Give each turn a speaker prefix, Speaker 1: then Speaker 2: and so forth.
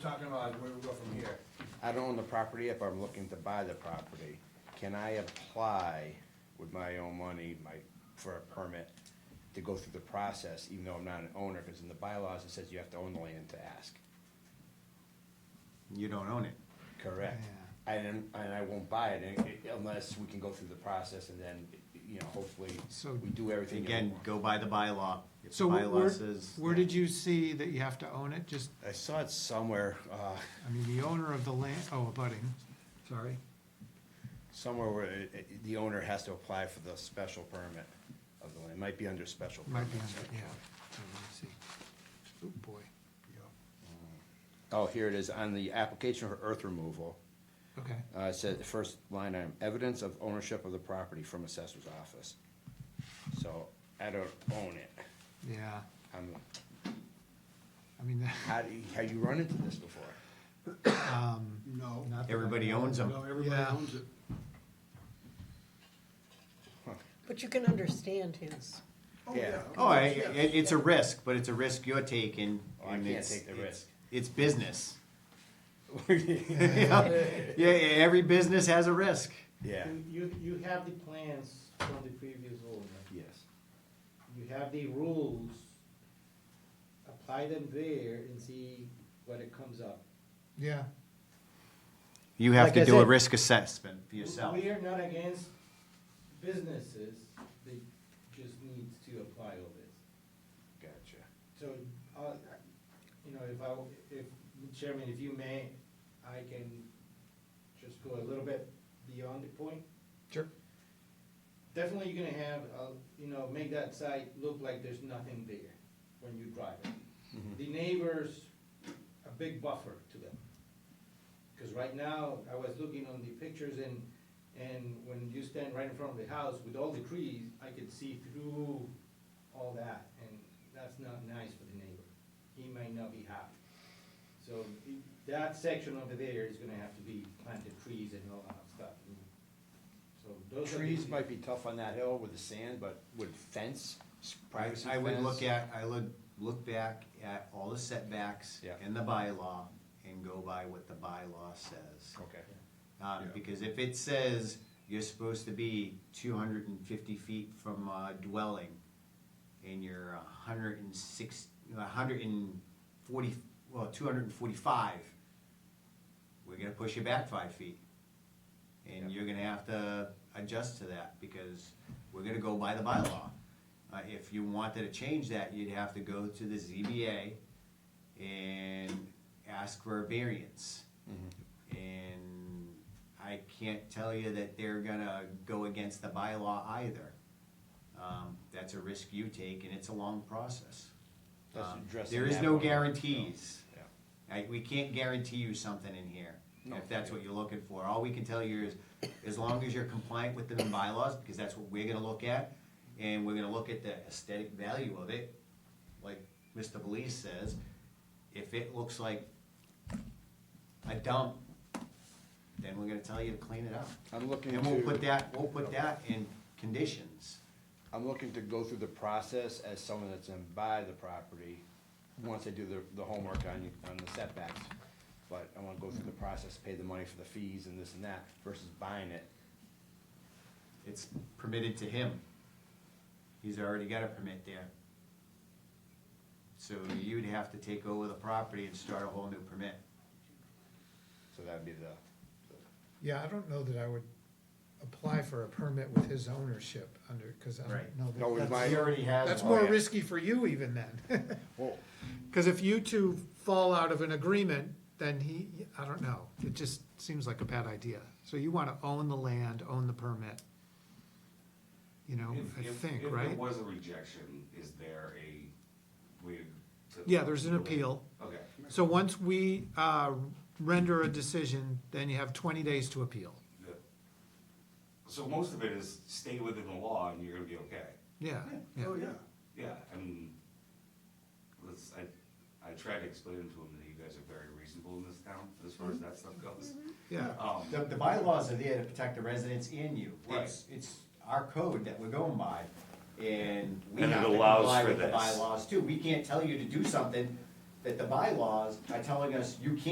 Speaker 1: talking about where we go from here.
Speaker 2: I don't own the property, if I'm looking to buy the property, can I apply with my own money, my, for a permit to go through the process, even though I'm not an owner, because in the bylaws, it says you have to own the land to ask,
Speaker 3: You don't own it.
Speaker 2: correct? And, and I won't buy it un- unless we can go through the process and then, you know, hopefully,
Speaker 4: So-
Speaker 2: we do everything.
Speaker 3: Again, go by the bylaw. If the
Speaker 4: So wh- where,
Speaker 3: bylaw says.
Speaker 4: where did you see that you have to own it? Just,
Speaker 2: I saw it somewhere, uh,
Speaker 4: I mean, the owner of the land, oh, abutting, sorry.
Speaker 2: somewhere where it- it- the owner has to apply for the special permit of the land, it might be under special permit.
Speaker 4: Might be under, yeah. Oh, let me see. Oh, boy.
Speaker 2: Oh, here it is, on the application for earth removal,
Speaker 4: Okay.
Speaker 2: uh, it said, the first line item, evidence of ownership of the property from assessor's office. So, I don't own it,
Speaker 4: Yeah.
Speaker 2: I'm,
Speaker 4: I mean, that-
Speaker 2: how do you, have you run into this before?
Speaker 1: No.
Speaker 4: not that I
Speaker 3: Everybody
Speaker 4: know.
Speaker 3: owns them.
Speaker 1: No, everybody
Speaker 4: Yeah.
Speaker 1: owns it.
Speaker 5: But you can understand his,
Speaker 1: Oh,
Speaker 2: Yeah.
Speaker 1: yeah. of
Speaker 3: Oh, I,
Speaker 1: course, yeah.
Speaker 3: it, it's a risk, but it's a risk you're taking.
Speaker 2: Oh, I
Speaker 3: and
Speaker 2: can't
Speaker 3: it's-
Speaker 2: take the
Speaker 3: it's-
Speaker 2: risk.
Speaker 3: It's business. Yeah, yeah, e, every business has a risk.
Speaker 2: Yeah,
Speaker 6: You, you you have the plans from the previous owner,
Speaker 2: yes,
Speaker 6: you have the rules, apply them there and see what it comes up.
Speaker 4: Yeah.
Speaker 3: You have
Speaker 6: Like
Speaker 3: to
Speaker 6: I
Speaker 3: do a
Speaker 6: said-
Speaker 3: risk assessment for yourself.
Speaker 6: We are not against businesses, they just need to apply all this.
Speaker 2: gotcha.
Speaker 6: So, uh, you know, if I, if, Chairman, if you may, I can just go a little bit beyond the point.
Speaker 4: Sure.
Speaker 6: Definitely you're gonna have, uh, you know, make that site look like there's nothing there when you drive it. The neighbors, a big buffer to them. Cause right now, I was looking on the pictures and, and when you stand right in front of the house with all the trees, I could see through all that, and that's not nice for the neighbor. He might not be happy. So i- that section over there is gonna have to be planted trees and all that stuff. So those are the-
Speaker 2: Trees might be tough on that hill with the sand, but with fence, privacy
Speaker 3: I would look
Speaker 2: fence,
Speaker 3: at, I would look back at all the setbacks
Speaker 2: Yeah.
Speaker 3: in the bylaw and go by what the bylaw says.
Speaker 2: Okay,
Speaker 3: Um,
Speaker 2: Yeah.
Speaker 3: because if it says you're supposed to be two hundred and fifty feet from a dwelling, and you're a hundred and six, a hundred and forty, well, two hundred and forty-five, we're gonna push you back five feet. And
Speaker 2: Yeah.
Speaker 3: you're gonna have to adjust to that, because we're gonna go by the bylaw. Uh, if you wanted to change that, you'd have to go to the ZBA and ask for a variance.
Speaker 2: Mm-hmm.
Speaker 3: And I can't tell you that they're gonna go against the bylaw either. Um, that's a risk you take and it's a long process.
Speaker 2: That's
Speaker 3: Um,
Speaker 2: addressing
Speaker 3: There is
Speaker 2: that
Speaker 3: no
Speaker 2: one, so,
Speaker 3: guarantees.
Speaker 2: yeah.
Speaker 3: I, we can't guarantee you something in here,
Speaker 2: No.
Speaker 3: if that's what you're looking for. All we can tell you is, as long as you're compliant with the bylaws, because that's what we're gonna look at, and we're gonna look at the aesthetic value of it, like Mr. Belize says, if it looks like a dump, then we're gonna tell you to clean it up.
Speaker 2: I'm looking
Speaker 3: And we'll
Speaker 2: to-
Speaker 3: put that, we'll put that in conditions.
Speaker 2: I'm looking to go through the process as someone that's in buy the property, once I do the, the homework on, on the setbacks. But I wanna go through the process, pay the money for the fees and this and that, versus buying it.
Speaker 3: It's permitted to him. He's already got a permit there. So you'd have to take over the property and start a whole new permit.
Speaker 2: So that'd be the,
Speaker 4: Yeah, I don't know that I would apply for a permit with his ownership under, because I
Speaker 3: Right. Oh,
Speaker 4: don't know. that-
Speaker 2: No, with
Speaker 4: that's-
Speaker 2: my-
Speaker 3: He already has.
Speaker 4: That's
Speaker 3: one.
Speaker 4: more
Speaker 2: yeah.
Speaker 4: risky for you even then.
Speaker 2: well,
Speaker 4: Because if you two fall out of an agreement, then he, I don't know, it just seems like a bad idea. So you want to own the land, own the permit. You know,
Speaker 7: If-
Speaker 4: I
Speaker 7: if-
Speaker 4: think,
Speaker 7: If
Speaker 4: right?
Speaker 7: there was a rejection, is there a way to?
Speaker 4: Yeah, there's an appeal.
Speaker 7: Okay,
Speaker 4: So once we uh, render a decision, then you have twenty days to appeal.
Speaker 7: good. So most of it is stay within the law and you're gonna be okay.
Speaker 4: Yeah, yeah.
Speaker 1: Oh, yeah.
Speaker 7: Yeah, I mean, let's, I, I tried to explain to him that you guys are very reasonable in this town as far as that stuff goes.
Speaker 4: Yeah,
Speaker 7: Um,
Speaker 3: The, the bylaws are there to protect the residents and you. It's, it's our code that we're going by, and we
Speaker 7: And it
Speaker 3: have to
Speaker 7: allows
Speaker 3: comply
Speaker 7: for
Speaker 3: with the
Speaker 7: this.
Speaker 3: bylaws too. We can't tell you to do something that the bylaws are telling us you can't